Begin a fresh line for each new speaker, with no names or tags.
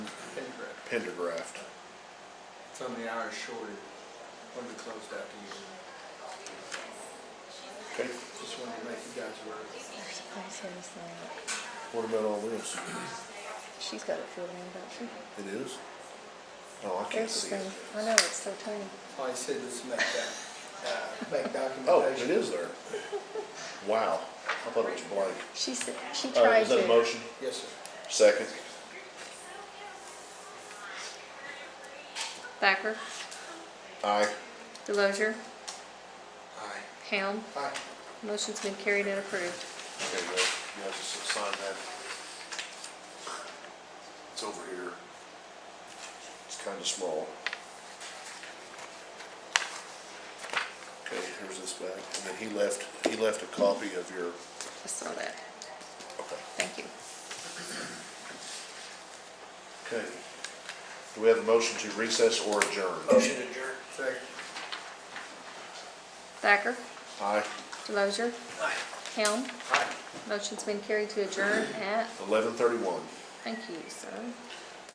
Pendergraft.
It's on the hours shorted, when we closed out the year.
Okay,
Just wanted to make you guys aware.
There's also this thing.
what about all this?
She's got it filled in, don't she?
It is? Oh, I can't
There's
see
the
it.
thing. I know, it's so tiny.
All I said was make that, uh, make
Oh, it
documentation.
is there. Wow, I thought it was blank.
She said, she
All right,
tried
Oh, is that a
to.
motion?
Yes, sir.
Second.
Thacker,
Aye.
Delozer,
Aye.
Helm.
Aye.
Motion's been carried and approved.
Okay, you guys, you guys just sign that. It's over here. It's kinda small. Okay, here's this back, and then he left, he left a copy of your,
I saw that.
okay.
Thank you.
Okay. Do we have a motion to recess or adjourn?
Motion adjourned. Second.
Thacker,
Aye,
Delozer,
Aye.
Helm.
Aye.
Motion's been carried to adjourn at,
eleven thirty-one.
thank you, sir.